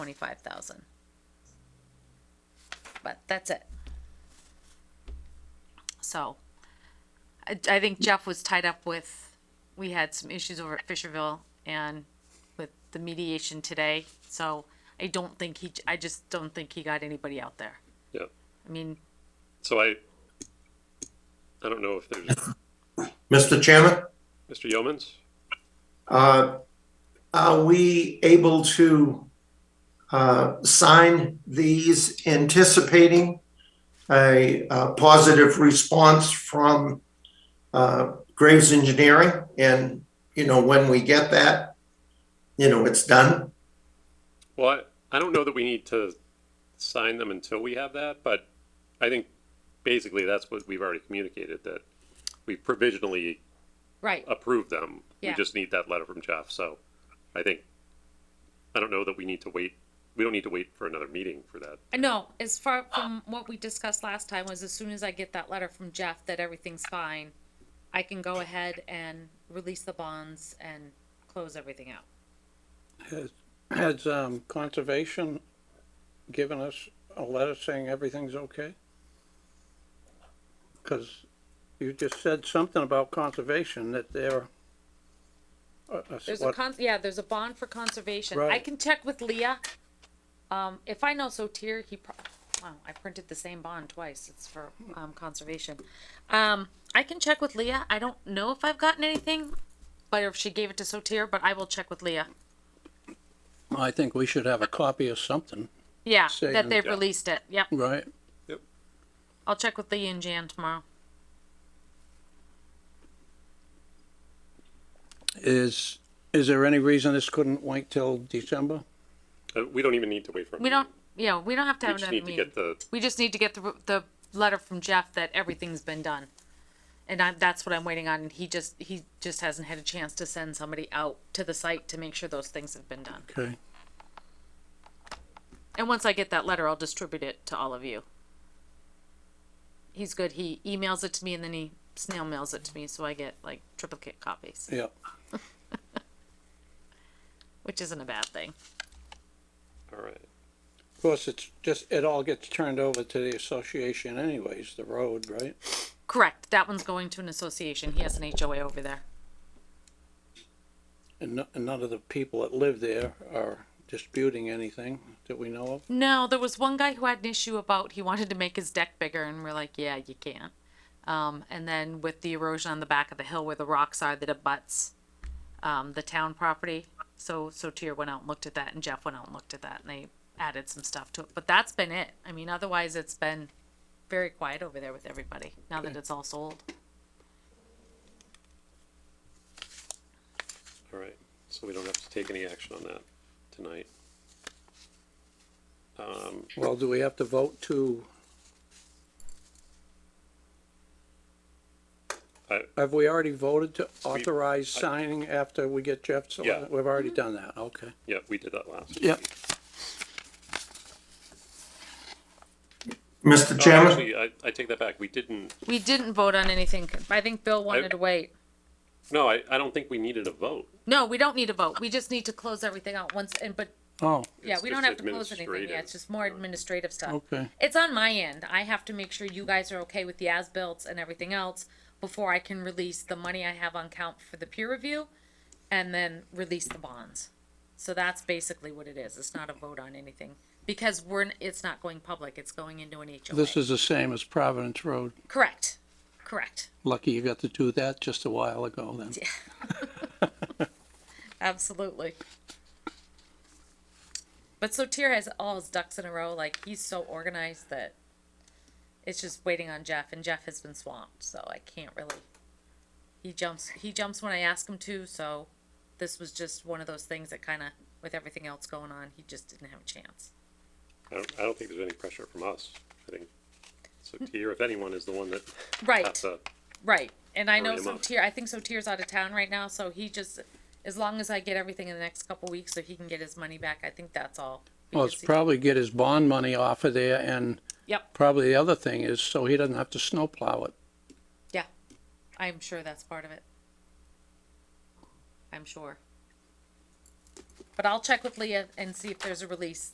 twenty-five thousand. But that's it. So, I, I think Jeff was tied up with, we had some issues over at Fisherville and with the mediation today, so I don't think he, I just don't think he got anybody out there. Yeah. I mean, So I, I don't know if there's, Mr. Chairman, Mr. Yeomans? uh, are we able to uh, sign these anticipating a uh, positive response from uh, Graves Engineering? And, you know, when we get that, you know, it's done. Well, I, I don't know that we need to sign them until we have that, but I think basically that's what we've already communicated, that we provisionally right, approved them. We Yeah. just need that letter from Jeff, so I think, I don't know that we need to wait, we don't need to wait for another meeting for that. I know, as far from what we discussed last time was as soon as I get that letter from Jeff that everything's fine, I can go ahead and release the bonds and close everything out. Has um, conservation given us a letter saying everything's okay? Because you just said something about conservation that they're. uh, uh, There's a what- con, yeah, there's a bond for conservation. I Right. can check with Leah. Um, if I know Sotir, he pro- wow, I printed the same bond twice. It's for, um, conservation. Um, I can check with Leah. I don't know if I've gotten anything, but if she gave it to Sotir, but I will check with Leah. I think we should have a copy of something, Yeah, Say- that they've Yeah. released it. Yep. right? I'll check with Leah and Jan tomorrow. Is, is there any reason this couldn't wait till December? Uh, we don't even need to wait for. a We don't, meeting. yeah, we don't have to We have just another need to meeting. get the, We just need to get the, the letter from Jeff that everything's been done. And I, that's what I'm waiting on. He just, he just hasn't had a chance to send somebody out to the site to make sure those things have been done. Okay. And once I get that letter, I'll distribute it to all of you. He's good. He emails it to me and then he snail mails it to me, so I get like triplicate copies, Yeah, which isn't a bad thing. all right. of course, it's just, it all gets turned over to the association anyways, the road, right? Correct. That one's going to an association. He has an HOA over there. And no- and none of the people that live there are disputing anything that we know of? No, there was one guy who had an issue about he wanted to make his deck bigger, and we're like, yeah, you can't. Um, and then with the erosion on the back of the hill where the rocks are that abuts um, the town property, so so Tier went out and looked at that, and Jeff went out and looked at that, and they added some stuff to it. But that's been it. I mean, otherwise it's been very quiet over there with everybody now that it's all sold. All right, so we don't have to take any action on that tonight. Um, Well, do we have to vote to? I- Have we already voted to authorize signing after we get Jeff's? Yeah. We've already done that, okay. yeah, we did that last. Yep. Mr. Oh, Chairman, Actually, I, I take that back. We didn't, We didn't vote on anything. I think Bill wanted to wait. no, I, I don't think we needed a vote. No, we don't need a vote. We just need to close everything out once, and but Oh, Yeah, It's we don't just have to close anything yet, administrative. it's just more administrative stuff. okay. It's on my end, I have to make sure you guys are okay with the as-bills and everything else before I can release the money I have on count for the peer review and then release the bonds. So that's basically what it is, it's not a vote on anything, because we're, n- it's not going public, it's going into an This HOA. is the same as Providence Road. Correct, correct, Lucky you got to do that just a while ago then. absolutely. But so Tier has all his ducks in a row, like he's so organized that it's just waiting on Jeff, and Jeff has been swamped, so I can't really. He jumps. He jumps when I ask him to. So this was just one of those things that kind of, with everything else going on, he just didn't have a chance. I don't, I don't think there's any pressure from us. I think, so Tier, if anyone, is the one that Right, has to, right. And I know Hurry him up. Sotir. I think Sotir's out of town right now, so he just, as long as I get everything in the next couple weeks, so he can get his money back. I think that's all. Well, it's Because he- probably get his bond money off of there and Yep. probably the other thing is so he doesn't have to snowplow it. Yeah, I'm sure that's part of it. I'm sure. But I'll check with Leah and see if there's a release